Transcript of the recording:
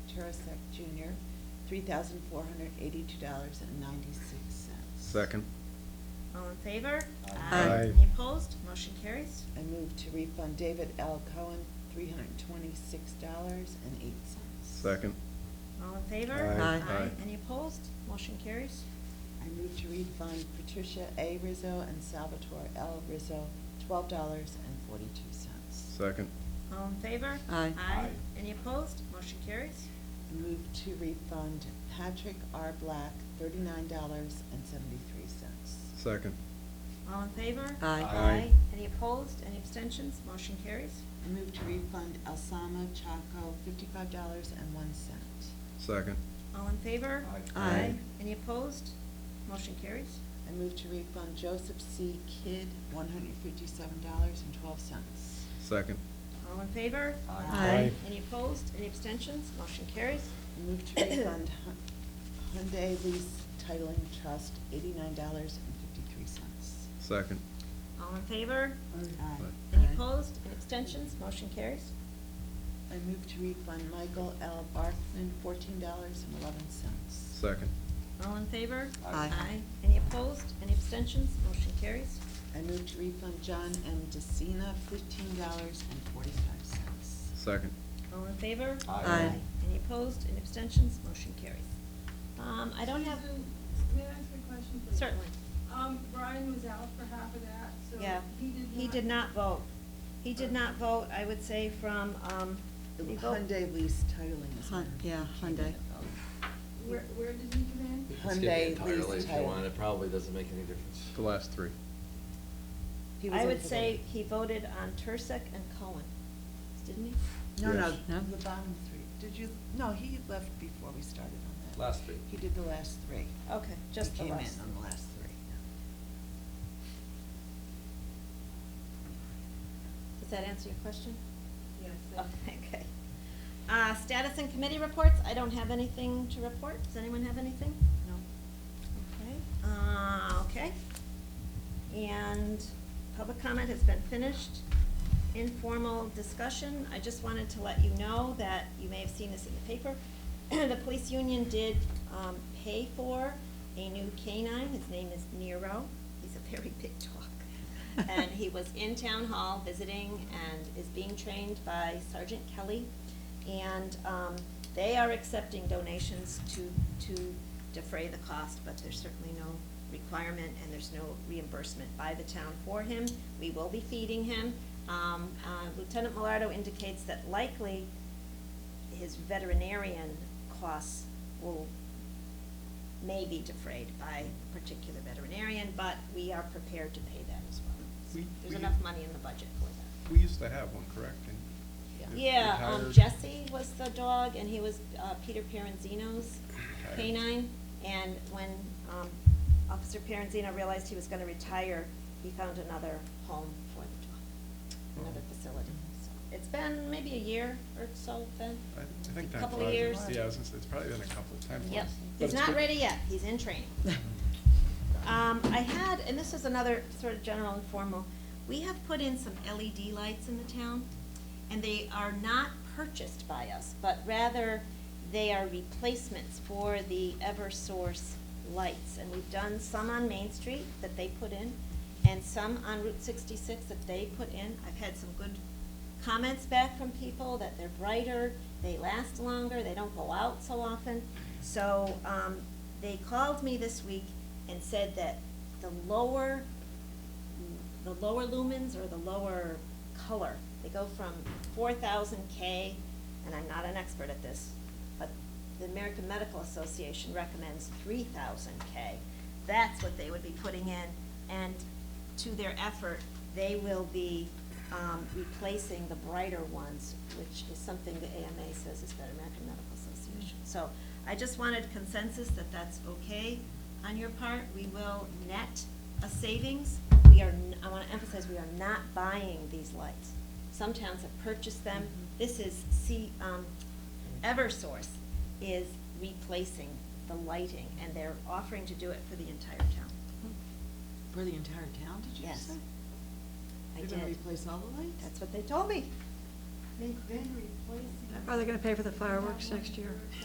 Perasek Jr., three thousand four hundred eighty-two dollars and ninety-six cents. Second. All in favor? Aye. Aye. Any opposed? Motion carries. I move to refund David L. Cohen, three hundred twenty-six dollars and eight cents. Second. All in favor? Aye. Aye. Aye. Any opposed? Motion carries. I move to refund Patricia A. Rizzo and Salvatore L. Rizzo, twelve dollars and forty-two cents. Second. All in favor? Aye. Aye. Aye. Any opposed? Motion carries. I move to refund Patrick R. Black, thirty-nine dollars and seventy-three cents. Second. All in favor? Aye. Aye. Any opposed? Any abstentions? Motion carries. I move to refund Elsama Chaco, fifty-five dollars and one cent. Second. All in favor? Aye. Aye. Any opposed? Motion carries. I move to refund Joseph C. Kidd, one hundred fifty-seven dollars and twelve cents. Second. All in favor? Aye. Aye. Any opposed? Any abstentions? Motion carries. I move to refund Hun- Hyundai Lease Titling Trust, eighty-nine dollars and fifty-three cents. Second. All in favor? Aye. Any Aye. opposed? Any abstentions? Motion carries. I move to refund Michael L. Barkman, fourteen dollars and eleven cents. Second. All in favor? Aye. Aye. Any opposed? Any abstentions? Motion carries. I move to refund John M. DeCina, fifteen dollars and forty-five cents. Second. All in favor? Aye. Aye. Any opposed? Any abstentions? Motion carries. Um, I don't have, Susan, May I ask a question, please? certainly, Um, Brian was out for half of that, so yeah. he did not. He did not vote. He did not vote, I would say, from, um, he vote- Hyundai Lease Titling is. Hun- where yeah, he did Hyundai. it. Where, where did he come in? You can skip it Hyundai entirely lease if you type. want, it probably doesn't make any difference. The last three. He was I in would for the- say he voted on Tursek and Cohen, didn't he? No, no, Yes. No? the bottom three. Did you, no, he left before we started on that. Last three. He did the last three. Okay, just the He last. came in on the last three. Does that answer your question? Yes. Oh, Okay. Uh, status and committee reports, I don't have anything to report. Does anyone have anything? No. Okay, uh, okay. And public comment has been finished. Informal discussion, I just wanted to let you know that, you may have seen this in the paper, the police union did, um, pay for a new canine, his name is Nero, he's a very big dog. And he was in town hall visiting and is being trained by Sergeant Kelly. And um, they are accepting donations to, to defray the cost, but there's certainly no requirement and there's no reimbursement by the town for him. We will be feeding him. Um, uh, Lieutenant Millardo indicates that likely his veterinarian costs will may be defrayed by a particular veterinarian, but we are prepared to pay that as well. We- There's we- enough money in the budget for that. We used to have one, correct? And it Yeah, um, retired. Jesse was the dog, and he was, uh, Peter Pieranzino's Retired. canine, and when, um, Officer Pieranzino realized he was gonna retire, he found another home for the dog, another Oh. facility, so. It's been maybe a year or so, then. I I think that's. Couple what of I- years. Yeah, I was gonna say, it's probably been a couple of times. Yep, But it's he's not good- ready yet, he's in training. Um, I had, and this is another sort of general informal, we have put in some LED lights in the town, and they are not purchased by us, but rather they are replacements for the Eversource lights. And we've done some on Main Street that they put in, and some on Route sixty-six that they put in. I've had some good comments back from people that they're brighter, they last longer, they don't go out so often. So, um, they called me this week and said that the lower, the lower lumens or the lower color, they go from four thousand K, and I'm not an expert at this, but the American Medical Association recommends three thousand K. That's what they would be putting in, and to their effort, they will be, um, replacing the brighter ones, which is something the AMA says is the American Medical Association. So I just wanted consensus that that's okay on your part. We will net a savings. We are, n- I wanna emphasize, we are not buying these lights. Some towns have purchased them. This is, see, um, Eversource is replacing the lighting, and they're offering to do it for the entire town. For the entire town, did Yes. I You're did. Mm-hmm. gonna replace all the lights? That's what they told me. They've been replacing. Are they gonna pay for the fireworks next year?